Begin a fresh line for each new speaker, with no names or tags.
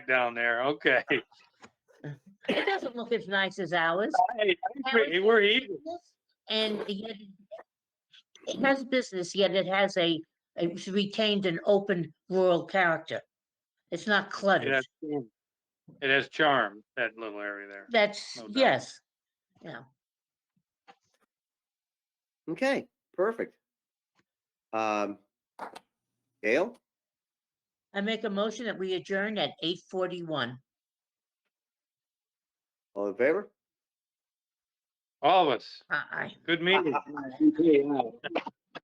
down there. Okay. I-
It doesn't look as nice as ours.
I agree. We're even.
And yet, it has business, yet it has a, it's retained an open rural character. It's not
It
cluttered.
has, charm. it has charm, that little area there.
That's,
no doubt.
yes.
Okay, perfect. Um, Gail,
I make a motion that we adjourn at eight forty-one.
all in favor?
All of us.
Aye.
Good meeting.